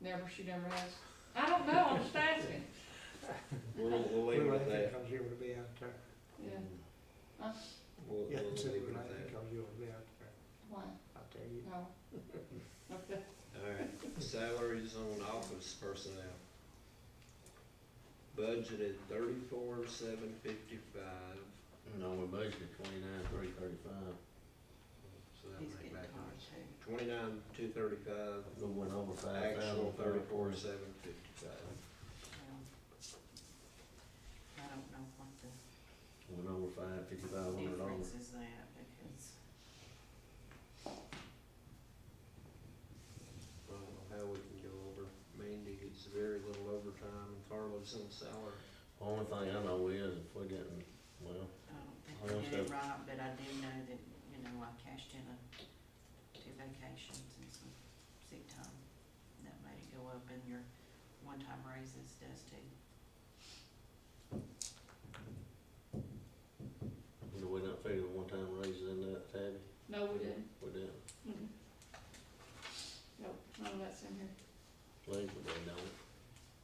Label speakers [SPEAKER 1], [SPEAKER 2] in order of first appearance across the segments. [SPEAKER 1] Never, she never has. I don't know, I'm just asking.
[SPEAKER 2] We'll, we'll leave it at that.
[SPEAKER 3] Because you would be out there.
[SPEAKER 1] Yeah. Huh?
[SPEAKER 2] We'll, we'll
[SPEAKER 3] Yeah,
[SPEAKER 2] leave it
[SPEAKER 3] consider it
[SPEAKER 2] at that.
[SPEAKER 3] because you would be out there.
[SPEAKER 1] Why?
[SPEAKER 3] I tell you.
[SPEAKER 1] No. Okay.
[SPEAKER 2] Alright, salaries on office personnel. Budgeted thirty-four, seven fifty-five,
[SPEAKER 4] No, we budgeted twenty-nine, three thirty-five,
[SPEAKER 2] so that make back twenty-nine, two thirty-five,
[SPEAKER 4] we went over five thousand.
[SPEAKER 2] actual thirty-four, seven fifty-five.
[SPEAKER 5] I don't know what the
[SPEAKER 4] Went over five, fifty-five hundred dollars.
[SPEAKER 5] difference is that, because
[SPEAKER 2] I don't know how we can go over, Mandy gets very little overtime, and Carlos on salary.
[SPEAKER 4] Only thing I know is if we didn't, well,
[SPEAKER 5] I don't think I did
[SPEAKER 4] Well,
[SPEAKER 5] it
[SPEAKER 4] so-
[SPEAKER 5] right, but I do know that, you know, I cashed in a, two vacations and some sick time. and That made it go up, and your one-time raises does too.
[SPEAKER 4] did we not figure the one-time raises in that, Tabby?
[SPEAKER 1] No, we didn't.
[SPEAKER 4] We didn't,
[SPEAKER 1] Mm-mm. Nope, none of that's in here.
[SPEAKER 4] legally don't.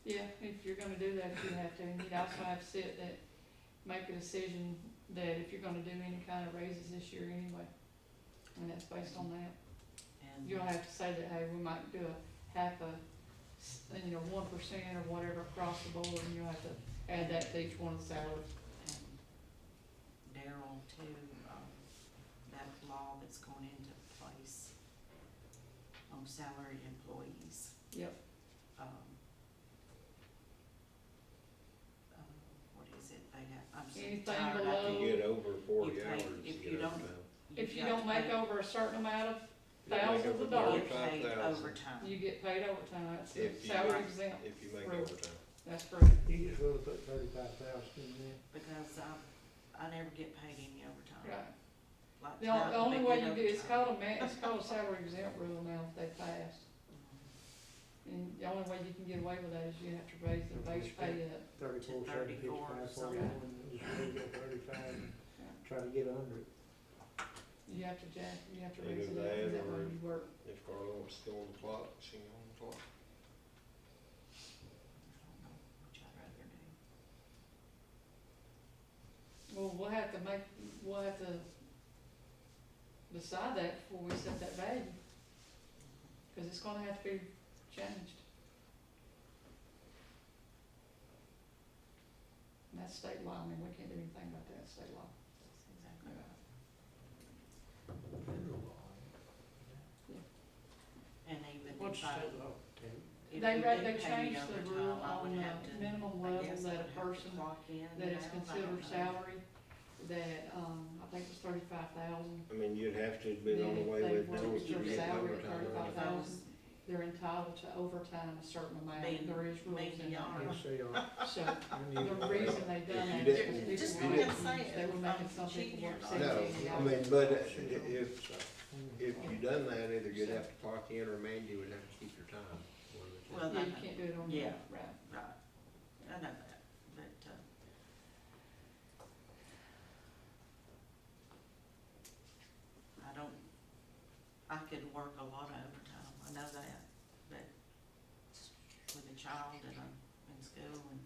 [SPEAKER 1] Yeah, if you're gonna do that, you have to, and you'd also have to sit that, make a decision that if you're gonna do any kind of raises this year anyway. And that's based on that.
[SPEAKER 5] And
[SPEAKER 1] You'll have to say that, hey, we might do a half a, s- you know, one percent or whatever across the board, and you'll have to add that to each one of the salaries.
[SPEAKER 5] and Daryl too, um, that law that's going into place on salaried employees.
[SPEAKER 1] Yep.
[SPEAKER 5] Um, uh, what is it, they have, I'm so
[SPEAKER 1] Anything
[SPEAKER 5] tired, I
[SPEAKER 1] below-
[SPEAKER 2] If you get over forty
[SPEAKER 5] Oh, You pay-
[SPEAKER 2] hours,
[SPEAKER 5] if
[SPEAKER 2] you
[SPEAKER 5] you
[SPEAKER 2] get
[SPEAKER 5] don't-
[SPEAKER 2] overtime.
[SPEAKER 1] If you
[SPEAKER 5] got
[SPEAKER 1] don't
[SPEAKER 5] to
[SPEAKER 1] make
[SPEAKER 5] pay-
[SPEAKER 1] over a certain amount of,
[SPEAKER 2] You make
[SPEAKER 1] Thousands
[SPEAKER 2] over
[SPEAKER 1] of dollars.
[SPEAKER 5] You get
[SPEAKER 1] you get paid
[SPEAKER 5] paid overtime.
[SPEAKER 2] 45,000.
[SPEAKER 1] overtime, that's
[SPEAKER 2] If you-
[SPEAKER 1] salary exempt,
[SPEAKER 2] If you make
[SPEAKER 1] Right.
[SPEAKER 2] overtime.
[SPEAKER 1] that's correct.
[SPEAKER 3] You just really put thirty-five thousand in there.
[SPEAKER 5] Because I, I never get paid any
[SPEAKER 1] Right.
[SPEAKER 5] overtime. Like
[SPEAKER 1] The on- the
[SPEAKER 5] tonight,
[SPEAKER 1] only
[SPEAKER 5] we
[SPEAKER 1] way
[SPEAKER 5] did
[SPEAKER 1] you do, it's called
[SPEAKER 5] overtime.
[SPEAKER 1] a ma, it's called a salary exempt rule now if they passed.
[SPEAKER 5] Mm-hmm.
[SPEAKER 1] And the only way you can get away with that is you have to raise the base pay up.
[SPEAKER 3] Thirty-four, seven,
[SPEAKER 5] 34 or
[SPEAKER 3] fifty-five,
[SPEAKER 5] something.
[SPEAKER 3] forty-one, just really go thirty-five, and
[SPEAKER 1] Yeah.
[SPEAKER 3] try to get under it.
[SPEAKER 1] You have to jack, you have to
[SPEAKER 2] Either
[SPEAKER 1] raise it up,
[SPEAKER 2] that
[SPEAKER 1] is that
[SPEAKER 2] or-
[SPEAKER 1] where you work?
[SPEAKER 2] If Carla wants to go on the clock, she can go on the clock.
[SPEAKER 5] I don't know which I'd rather do.
[SPEAKER 1] Well, we'll have to make, we'll have to decide that before we set that value, cause it's gonna have to be changed. And that's state law, I mean, we can't do anything about that, it's state law.
[SPEAKER 5] That's exactly
[SPEAKER 1] Yeah.
[SPEAKER 5] right. And even if I,
[SPEAKER 1] What's that?
[SPEAKER 5] if
[SPEAKER 1] They
[SPEAKER 5] you
[SPEAKER 1] ra-
[SPEAKER 5] did
[SPEAKER 1] they
[SPEAKER 5] pay me
[SPEAKER 1] changed the
[SPEAKER 5] overtime,
[SPEAKER 1] rule
[SPEAKER 5] I would
[SPEAKER 1] on, uh,
[SPEAKER 5] have to-
[SPEAKER 1] minimum
[SPEAKER 5] I
[SPEAKER 1] level
[SPEAKER 5] guess I
[SPEAKER 1] that a
[SPEAKER 5] would have to
[SPEAKER 1] person
[SPEAKER 5] clock in
[SPEAKER 1] that
[SPEAKER 5] and
[SPEAKER 1] is
[SPEAKER 5] out, I don't know.
[SPEAKER 1] considered salary, that, um, I think it's thirty-five thousand,
[SPEAKER 2] I mean, you'd have to be on the
[SPEAKER 1] Then
[SPEAKER 2] way
[SPEAKER 1] they
[SPEAKER 2] with
[SPEAKER 1] want
[SPEAKER 2] knowing
[SPEAKER 5] to
[SPEAKER 2] you
[SPEAKER 5] keep
[SPEAKER 2] get
[SPEAKER 1] salary
[SPEAKER 2] overtime.
[SPEAKER 1] at
[SPEAKER 5] If I was
[SPEAKER 1] they're entitled to overtime a certain amount,
[SPEAKER 5] Being-
[SPEAKER 1] there is rules in there.
[SPEAKER 5] being
[SPEAKER 3] Yes, they are.
[SPEAKER 1] So,
[SPEAKER 3] I knew
[SPEAKER 1] the
[SPEAKER 3] that.
[SPEAKER 1] reason they done
[SPEAKER 2] If
[SPEAKER 1] that
[SPEAKER 2] you didn't-
[SPEAKER 1] is
[SPEAKER 2] if
[SPEAKER 1] because
[SPEAKER 2] you
[SPEAKER 1] people were
[SPEAKER 2] didn't-
[SPEAKER 1] making, they were making some people work seventeen
[SPEAKER 2] No, I
[SPEAKER 1] hours.
[SPEAKER 2] mean, but i- if,
[SPEAKER 3] Mm.
[SPEAKER 2] if you done that, either you'd have to clock in or Mandy would have to keep your time. one of the two.
[SPEAKER 1] Yeah,
[SPEAKER 5] Well,
[SPEAKER 1] you can't do it on your,
[SPEAKER 5] Yeah.
[SPEAKER 1] right,
[SPEAKER 5] Right, I know that, but, uh, I don't, I could work a lot of overtime, I know that, but with a child and I'm in school and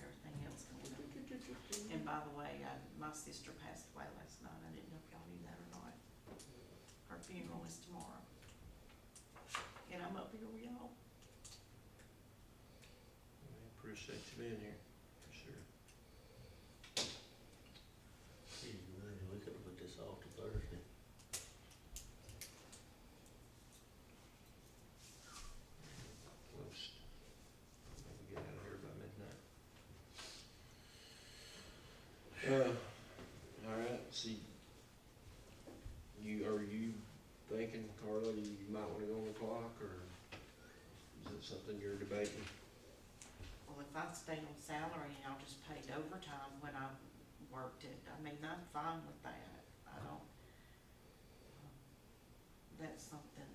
[SPEAKER 5] everything else going on. And by the way, I, my sister passed away last night, I didn't know if y'all knew that or not. Her funeral is tomorrow. And I'm up here with y'all.
[SPEAKER 2] We Appreciate you being here, for sure.
[SPEAKER 4] Gee, man, we could put this off to Thursday.
[SPEAKER 2] Close. Maybe Get out of here by midnight. Uh, all right, see, you, are you thinking, Carla, you might wanna go on the clock, or is it something you're debating?
[SPEAKER 5] Well, if I stayed on salary and I just paid overtime when I worked it, I mean, I'm fine with that, I don't. That's something